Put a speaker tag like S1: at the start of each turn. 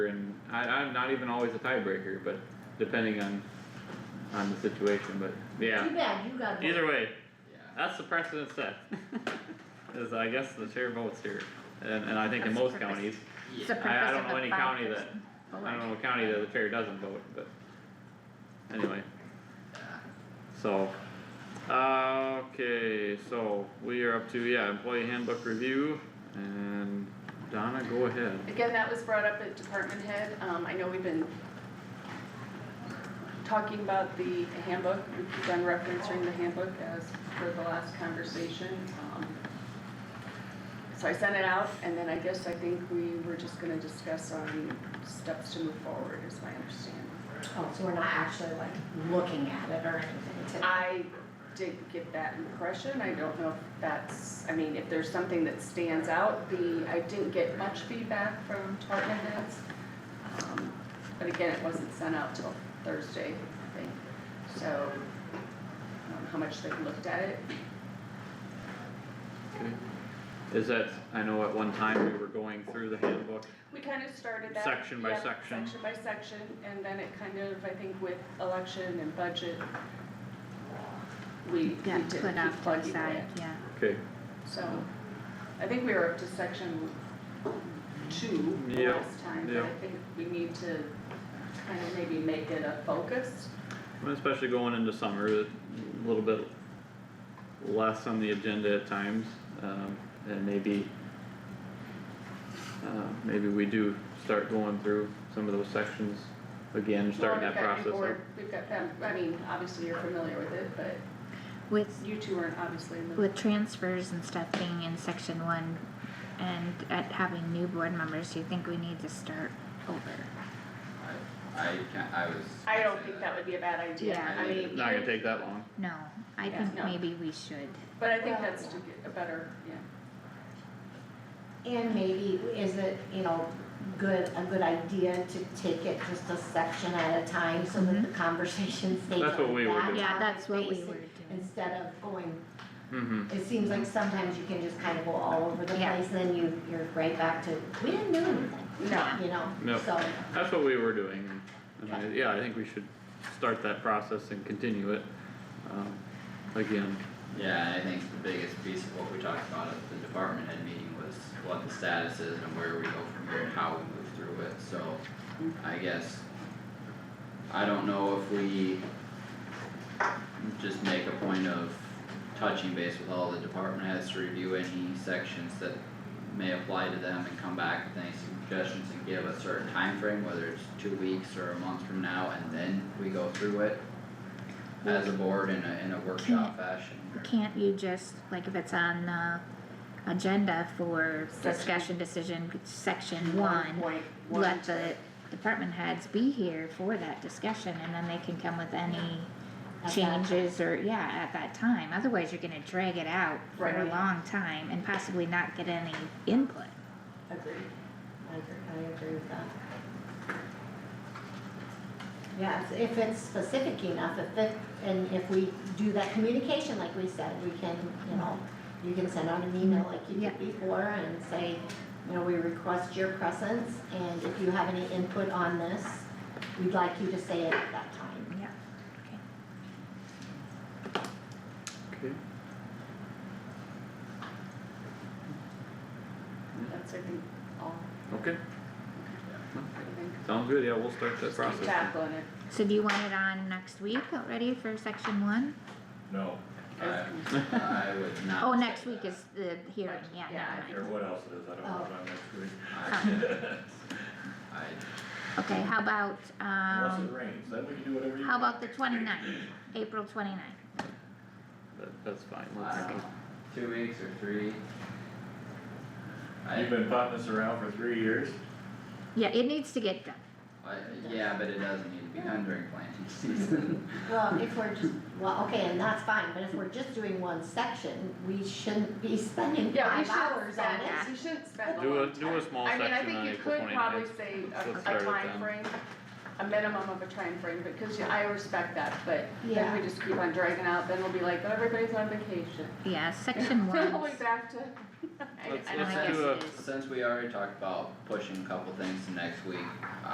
S1: and I, I'm not even always a tiebreaker, but depending on, on the situation, but yeah.
S2: Too bad you got. voted.
S1: Either way,
S3: Yeah.
S1: that's the precedent set. Is I guess the chair votes here, and, and I think in
S4: That's
S1: most
S4: the purpose.
S1: counties,
S4: It's
S3: Yeah.
S4: the
S1: I- I
S4: purpose
S1: don't
S4: of
S1: know
S4: a
S1: any county that-
S4: five-person
S1: I don't
S4: board.
S1: know what county that the chair doesn't vote, but anyway, so. Uh, okay, so we are up to, yeah, employee handbook review, and Donna, go ahead.
S5: Again, that was brought up at department head, um, I know we've been talking about the handbook, we keep on referencing the handbook as per the last conversation, um. So I sent it out, and then I guess I think we were just gonna discuss on steps to move forward, is my understanding.
S2: Oh, so we're not actually like looking at it or anything today?
S5: I did get that impression, I don't know if that's, I mean, if there's something that stands out, the, I didn't get much feedback from department heads. Um, But again, it wasn't sent out till Thursday, I think, so, I don't know how much they looked at it.
S1: Okay. Is that, I know at one time we were going through the handbook,
S5: We kind of started that.
S1: Section by
S5: yep,
S1: section.
S5: Section by section, and then it kind of, I think with election and budget, we, we
S4: Yeah,
S5: did keep
S4: put off to the
S5: plugging
S4: side,
S5: that.
S4: yeah.
S1: okay,
S5: So, I think we were up to section two
S1: Yeah,
S5: last time, but
S1: yeah.
S5: I think we need to kind of maybe make it a focus.
S1: especially going into summer, a little bit less on the agenda at times, um, and maybe uh, maybe we do start going through some of those sections again, starting
S5: Well,
S1: that process
S5: We've got,
S1: up.
S5: Feb- we've got, Feb- I mean, obviously you're familiar with it, but
S4: With,
S5: you two aren't obviously in the,
S4: with transfers and stuff being in section one and at having new board members, do you think we need to start over?
S3: I, I can't, I was.
S5: I don't think that would be a bad idea,
S4: Yeah.
S5: I mean.
S1: Not gonna take that long,
S4: No, I
S5: Yeah.
S4: think
S5: No.
S4: maybe we should.
S5: But I think that's to get a better, yeah,
S2: And maybe is it, you know, good, a good idea to take it just a section at a time so that the conversation stays
S1: That's what
S2: on
S1: we were
S2: that
S1: doing.
S4: Mm-hmm. Yeah,
S2: topic
S4: that's what we
S2: basis
S4: were doing.
S2: Instead of going,
S1: mm-hmm,
S2: it seems like sometimes you can just kind of go all over the
S4: Yeah.
S2: place and then you, you're right back to, we didn't do anything,
S5: no,
S2: you know,
S1: No.
S2: so.
S1: that's what we were doing, and I, yeah, I think we should start that process and continue it, um, again.
S3: Yeah, I think the biggest piece of what we talked about at the department head meeting was what the status is and where we go from here and how we move through it, so I guess. I don't know if we just make a point of touching base with all the department heads to review any sections that may apply to them and come back with any suggestions and give a certain time frame, whether it's two weeks or a month from now, and then we go through it as a board in a, in a workshop fashion. or-
S4: Can't you just, like if it's on the agenda for
S5: Section.
S4: discussion decision, section one,
S2: point one
S4: let
S2: to-
S4: the department heads be here for that discussion and then they can come with any
S2: At that
S4: changes or, yeah, at that time, otherwise you're gonna drag it out for a
S5: Right.
S4: long time and possibly not get any input.
S2: Agreed. I agree, I agree with that. Yeah, it's- if it's specific enough, if it, and if we do that communication like we said, we can, you know, you can send out an email like you
S4: Yeah.
S2: did before and say, you know, we request your presence and if you have any input on this, we'd like you to say it at that time.
S4: Yeah.
S1: Okay.
S5: that's I think all,
S1: Okay,
S5: I think,
S1: sounds good, yeah, we'll start that
S5: just keep
S1: process.
S5: tackling it.
S4: So do you want it on next week already for section one?
S6: No,
S4: Uh,
S3: I, I would not.
S4: Oh,
S3: say
S4: next week
S3: that.
S4: is the hearing, yeah,
S5: Yeah,
S4: never
S6: or
S4: mind.
S6: what else it is, I don't
S4: Oh.
S6: know about next week.
S3: I, I,
S4: Okay, how about,
S6: Unless it
S4: um,
S6: rains, then we can do whatever you.
S4: how
S6: want.
S4: about the twenty-ninth, April twenty-ninth?
S1: That- that's fine,
S3: I
S1: let's,
S3: don't know, two weeks or three. I,
S6: You've been putting this around for three years,
S4: Yeah, it needs to get done.
S3: I, yeah, but it doesn't need to be done during planting season.
S2: Well, if we're just, well, okay, and that's fine, but if we're just doing one section, we shouldn't be spending
S5: Yeah, we
S2: five
S5: shouldn't
S2: hours on
S5: spend,
S2: it.
S5: we shouldn't spend a
S1: Do a-
S5: long
S1: do a
S5: time.
S1: small section on April
S5: I mean, I
S1: 29th.
S5: think you could
S1: Let's
S5: probably
S1: start
S5: say
S1: it
S5: a, a
S1: then.
S5: timeframe, a minimum of a time frame because yeah, I respect that, but if
S2: Yeah.
S5: we just keep on dragging out, then we'll be like, "Oh, everybody's on vacation.
S4: Yeah, section one.
S5: We'll be back to. I-
S1: Let's-
S5: I don't
S1: let's
S5: think
S1: do
S5: it's-
S1: a-
S4: Yes, it is.
S3: Since we already talked about pushing a couple things to next week,